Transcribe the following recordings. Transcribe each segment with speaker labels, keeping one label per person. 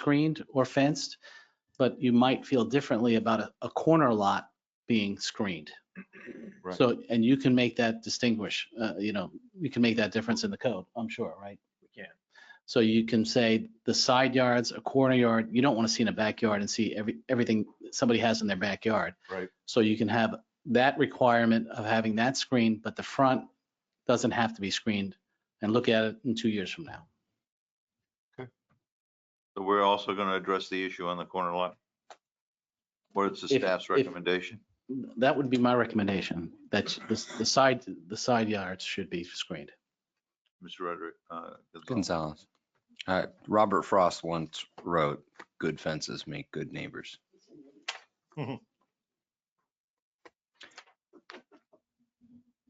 Speaker 1: screened or fenced, but you might feel differently about a, a corner lot being screened.
Speaker 2: Right.
Speaker 1: So, and you can make that distinguish, uh, you know, you can make that difference in the code, I'm sure, right?
Speaker 3: We can.
Speaker 1: So you can say the side yards, a corner yard, you don't want to see in a backyard and see every, everything somebody has in their backyard.
Speaker 2: Right.
Speaker 1: So you can have that requirement of having that screen, but the front doesn't have to be screened and look at it in two years from now.
Speaker 2: So we're also going to address the issue on the corner lot. What is the
Speaker 1: If-
Speaker 2: staff's
Speaker 1: if-
Speaker 2: recommendation?
Speaker 1: That would be my recommendation, that the, the side, the side yards should be screened.
Speaker 2: Mr. Roderick, uh, Gonzalez.
Speaker 4: Gonzalez. Uh, Robert Frost once wrote, "Good fences make good neighbors."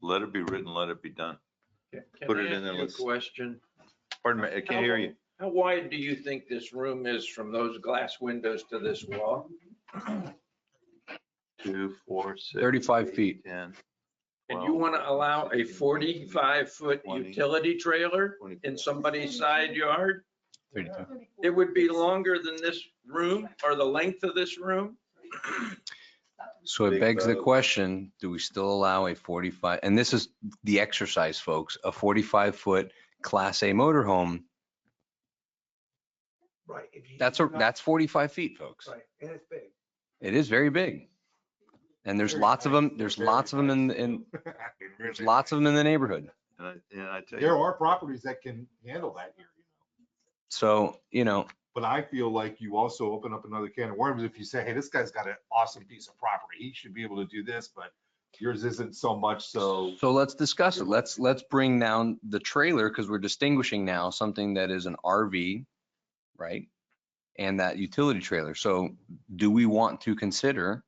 Speaker 2: let it be written, let it be done.
Speaker 3: Can I
Speaker 2: Put it in
Speaker 3: ask
Speaker 2: there,
Speaker 3: you a
Speaker 2: let's-
Speaker 3: question?
Speaker 2: Pardon me, I can't hear you.
Speaker 3: How wide do you think this room is from those glass windows to this wall?
Speaker 2: Two, four, six.
Speaker 4: 35
Speaker 2: eight,
Speaker 4: feet.
Speaker 2: 10,
Speaker 3: And you
Speaker 2: 12,
Speaker 3: want to allow a 45-foot
Speaker 2: 20.
Speaker 3: utility trailer
Speaker 2: 24.
Speaker 3: in somebody's side yard?
Speaker 4: Thirty-five.
Speaker 3: It would be longer than this room or the length of this room?
Speaker 4: So it
Speaker 2: Big
Speaker 4: begs the
Speaker 2: vote.
Speaker 4: question: Do we still allow a 45? And this is the exercise, folks. A 45-foot Class A motorhome.
Speaker 5: Right. if you-
Speaker 4: That's a,
Speaker 5: you're not-
Speaker 4: that's 45 feet, folks.
Speaker 5: Right, and it's big.
Speaker 4: It is very big. And there's
Speaker 5: Very
Speaker 4: lots of
Speaker 5: nice,
Speaker 4: them. There's
Speaker 5: very
Speaker 4: lots of them in, in there's lots of them in the neighborhood.
Speaker 2: And I, and I tell
Speaker 6: There
Speaker 2: you,
Speaker 6: are properties that can handle that here, you know.
Speaker 4: So you know,
Speaker 6: But I feel like you also open up another can of worms if you say, hey, this guy's got an awesome piece of property. He should be able to do this, but yours isn't so much, so.
Speaker 4: So let's discuss it. Let's, let's bring down the trailer because we're distinguishing now something that is an RV, right? And that utility trailer. So do we want to consider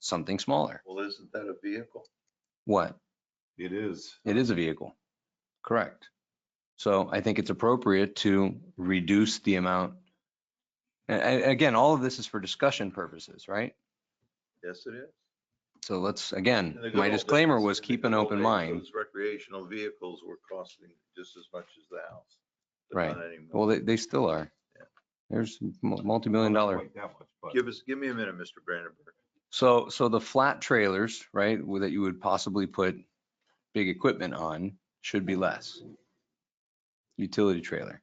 Speaker 4: something smaller?
Speaker 2: well, isn't that a vehicle?
Speaker 4: What?
Speaker 6: It is.
Speaker 4: It is a vehicle. Correct. So I think it's appropriate to reduce the amount. And, and again, all of this is for discussion purposes, right?
Speaker 2: Yes, it is.
Speaker 4: So let's,
Speaker 2: In the
Speaker 4: again,
Speaker 2: good
Speaker 4: my
Speaker 2: old
Speaker 4: disclaimer
Speaker 2: days-
Speaker 4: was
Speaker 2: in the
Speaker 4: keep
Speaker 2: good
Speaker 4: an
Speaker 2: old
Speaker 4: open
Speaker 2: days,
Speaker 4: mind.
Speaker 2: those Recreational vehicles were costing just as much as the house. but
Speaker 4: Right.
Speaker 2: not anymore.
Speaker 4: Well, they, they still are. There's mul- multi-million dollar
Speaker 6: Quite that much, but-
Speaker 2: Give us, give me a minute, Mr. Brandenburg.
Speaker 4: So, so the flat trailers, right, w- that you would possibly put big equipment on should be less. Utility trailer.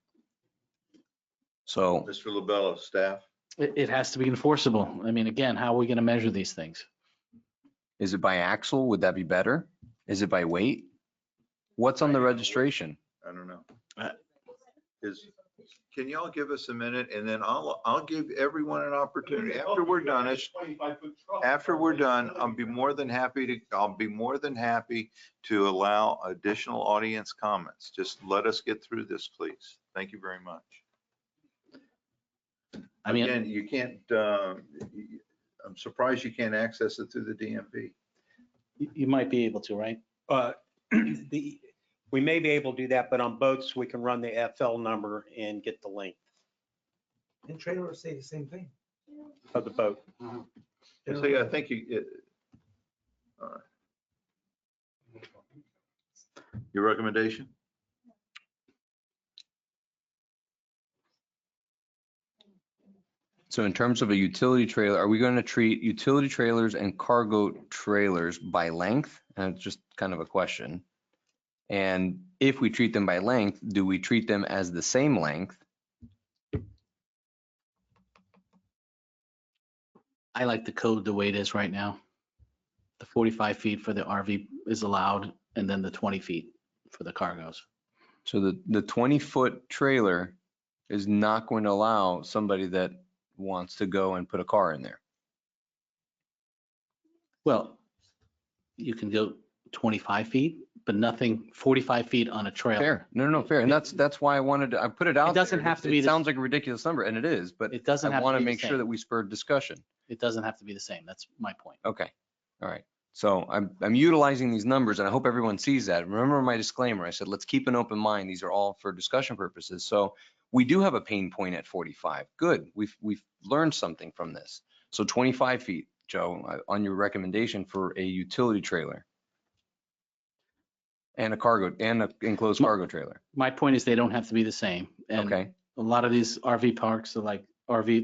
Speaker 4: So,
Speaker 2: Mr. Lobello, staff,
Speaker 1: It, it has to be enforceable. I mean, again, how are we going to measure these things?
Speaker 4: is it by axle? Would that be better? Is it by weight? What's on the registration?
Speaker 2: I don't know.
Speaker 1: Uh,
Speaker 2: Is, can y'all give us a minute and then I'll, I'll give everyone an opportunity. After we're done, it's, after we're done, I'll be more than happy to, I'll be more than happy to allow additional audience comments. Just let us get through this, please. Thank you very much.
Speaker 1: I mean.
Speaker 2: Again, you can't, uh, I'm surprised you can't access it through the DMV.
Speaker 1: You you might be able to, right?
Speaker 7: Uh the, we may be able to do that, but on boats, we can run the FL number and get the length
Speaker 5: And trailers say the same thing.
Speaker 7: of the boat.
Speaker 2: See, I think you, it- all right. Your recommendation?
Speaker 4: So in terms of a utility trailer, are we going to treat utility trailers and cargo trailers by length? And it's just kind of a question. And if we treat them by length, do we treat them as the same length?
Speaker 1: I like the code the way it is right now. The 45 feet for the RV is allowed and then the 20 feet for the cargos.
Speaker 4: So the, the twenty foot trailer is not going to allow somebody that wants to go and put a car in there.
Speaker 1: Well, you can go 25 feet, but nothing 45 feet on a trailer.
Speaker 4: Fair. No, no, no, fair. And that's, that's why I wanted to, I put it out.
Speaker 1: doesn't
Speaker 4: there.
Speaker 1: have to be
Speaker 4: It
Speaker 1: the-
Speaker 4: sounds like a ridiculous number and it is, but
Speaker 1: It doesn't
Speaker 4: I
Speaker 1: have
Speaker 4: want
Speaker 1: to
Speaker 4: to
Speaker 1: be the
Speaker 4: make sure that
Speaker 1: same.
Speaker 4: we spurred discussion.
Speaker 1: It doesn't have to be the same. That's my point.
Speaker 4: Okay, all right. So I'm, I'm utilizing these numbers and I hope everyone sees that. Remember my disclaimer, I said, let's keep an open mind. These are all for discussion purposes. So we do have a pain point at 45. Good, we've, we've learned something from this. So 25 feet, Joe, uh, on your recommendation for a utility trailer. And a cargo, and an enclosed
Speaker 1: My-
Speaker 4: cargo trailer.
Speaker 1: My point is they don't have to be the same. And
Speaker 4: Okay,
Speaker 1: a lot of these RV parks are like RV